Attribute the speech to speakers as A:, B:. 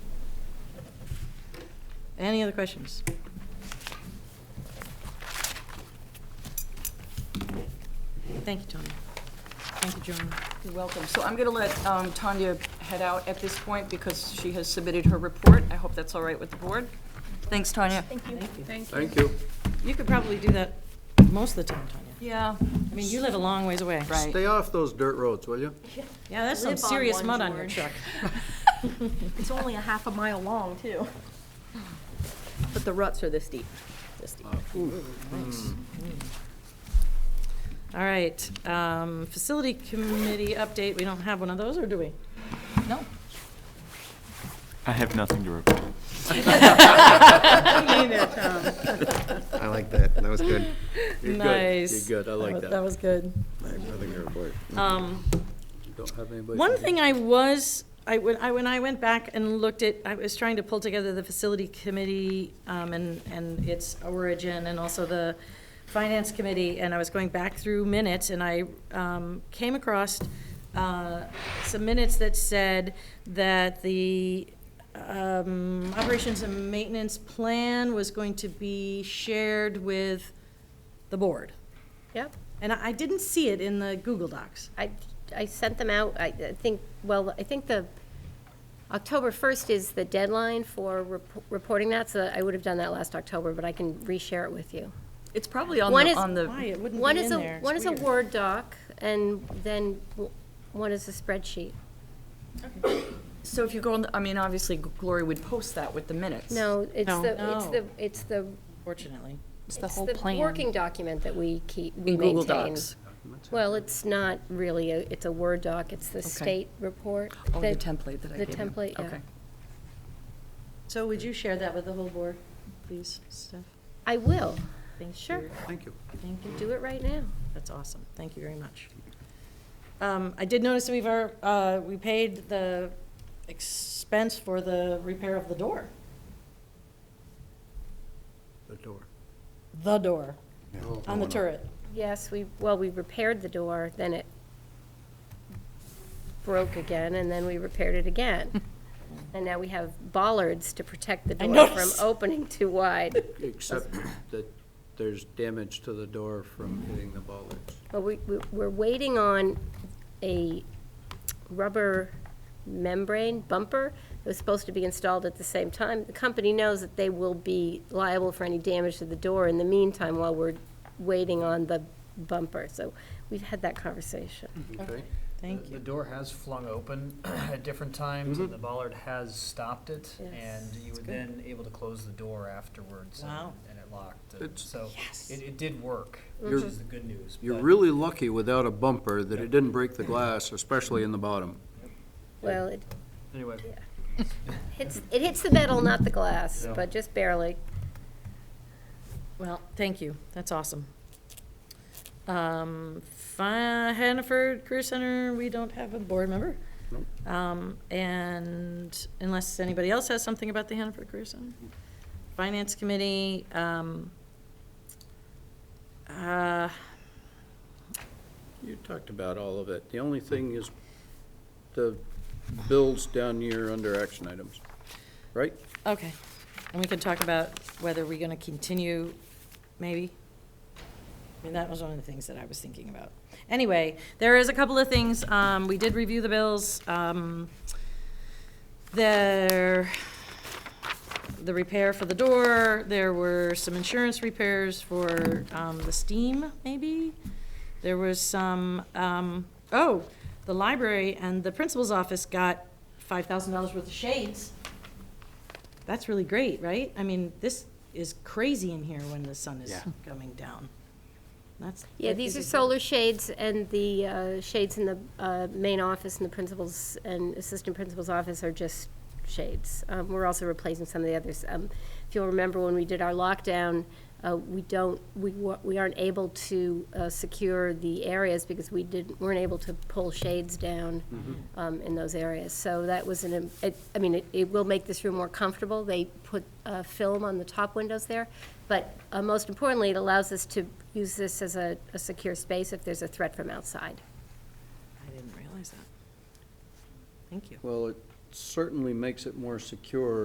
A: Any other questions? Thank you, Tony. Thank you, Joan.
B: You're welcome. So I'm going to let um, Tanya head out at this point because she has submitted her report. I hope that's all right with the board. Thanks, Tanya.
A: Thank you.
C: Thank you.
A: You could probably do that most of the time, Tanya.
B: Yeah,
A: I mean, you live a long ways away.
B: right.
C: Stay off those dirt roads, will you?
A: Yeah, there's some
D: Live on
A: serious
D: one,
A: mud on your
D: George.
A: truck.
D: It's only a half a mile long, too. But the ruts are this deep. This deep.
A: All right, um, facility committee update, we don't have one of those, or do we?
B: No.
E: I have nothing to report.
F: I like that. That was good.
C: You're good.
A: Nice.
C: You're good, I like
A: That
C: that.
A: was good.
F: I have nothing to report.
A: Um,
C: Don't have anybody.
A: One thing I was, I, when I, when I went back and looked at, I was trying to pull together the facility committee, um, and, and its origin, and also the finance committee, and I was going back through minutes, and I, um, came across, uh, some minutes that said that the, um, operations and maintenance plan was going to be shared with the board.
G: Yep,
A: And I I didn't see it in the Google Docs.
G: I, I sent them out, I I think, well, I think the, October 1st is the deadline for rep- reporting that, so I would have done that last October, but I can reshare it with you.
B: It's probably on
G: One
B: the,
G: is-
B: on
A: Why,
B: the,
A: it wouldn't
G: One
A: be
G: is
A: in
G: a
A: there. It's
G: One is a
A: weird.
G: Word doc, and then w- one is a spreadsheet.
B: so if you go on, the- I mean, obviously Glory would post that with the minutes.
G: No, it's
A: No.
G: the, it's
A: No.
G: the, it's the,
A: Fortunately.
D: It's the
G: it's
D: whole
G: the
D: plan.
G: working document that we keep, we
B: In
G: maintain.
B: Google Docs.
G: Well, it's not really, a it's a Word doc, it's the
B: Okay.
G: state report.
B: Oh, the
G: that-
B: template that I
G: the
B: gave you.
G: template, yeah.
B: Okay.
A: So would you share that with the whole board, please, Steph?
G: I will,
A: Thank
G: Sure.
A: you.
C: Thank you.
A: Thank you.
G: do it right now.
A: That's awesome. Thank you very much. Um, I did notice that we've, ar- uh, we paid the expense for the repair of the door,
C: The door.
A: the door,
C: Oh,
A: on the turret.
G: Yes, we, well, we repaired the door, then it broke again, and then we repaired it again. And now we have bollards to protect the
A: I
G: door from
A: noticed.
G: opening too wide.
C: Except that there's damage to the door from hitting the bollards.
G: But we, we- we're waiting on a rubber membrane bumper that was supposed to be installed at the same time. The company knows that they will be liable for any damage to the door in the meantime while we're waiting on the bumper. So we've had that conversation.
C: Okay?
A: Thank
H: The
A: you.
H: door has flung open at different times,
C: Mm-hmm.
H: and the bollard has stopped it,
G: Yes.
H: and you were then able to close the door afterwards. and-
A: Wow.
H: And it locked, and
C: It's-
H: so it, it did work, which
C: You're-
H: is the good news.
C: You're
H: but-
C: really lucky without a bumper that it didn't break the glass, especially in the bottom.
G: Well, it
H: Anyway,
G: hits, it hits the metal, not the glass,
H: Yeah.
G: but just barely.
A: Well, thank you. That's awesome. Um, Fi- Hannaford Career Center, we don't have a board member. Um, and unless anybody else has something about the Hannaford Career Center. Finance Committee, um, uh,
C: You talked about all of it. The only thing is the bills down here under action items, right?
A: okay. And we can talk about whether we're gonna continue, maybe? I mean, that was one of the things that I was thinking about. Anyway, there is a couple of things. Um, we did review the bills. Um, there, the repair for the door, there were some insurance repairs for, um, the steam, maybe? There was some, um, oh, the library and the principal's office got five thousand dollars worth of shades. That's really great, right? I mean, this is crazy in here when the sun is
F: Yeah.
A: coming down. That's.
G: Yeah,
A: that
G: these are
A: is a-
G: solar shades and the uh, shades in the uh, main office and the principal's and assistant principal's office are just shades. Um, We're also replacing some of the others. Um, If you'll remember, when we did our lockdown, uh, we don't, we wa- we aren't able to uh, secure the areas because we didn't, weren't able to pull shades down um, in those areas. So that was an, im- it- I mean, it- it will make this room more comfortable. They put uh, film on the top windows there, but uh, most importantly, it allows us to use this as a, a secure space if there's a threat from outside.
A: I didn't realize that. Thank you.
C: Well, it certainly makes it more secure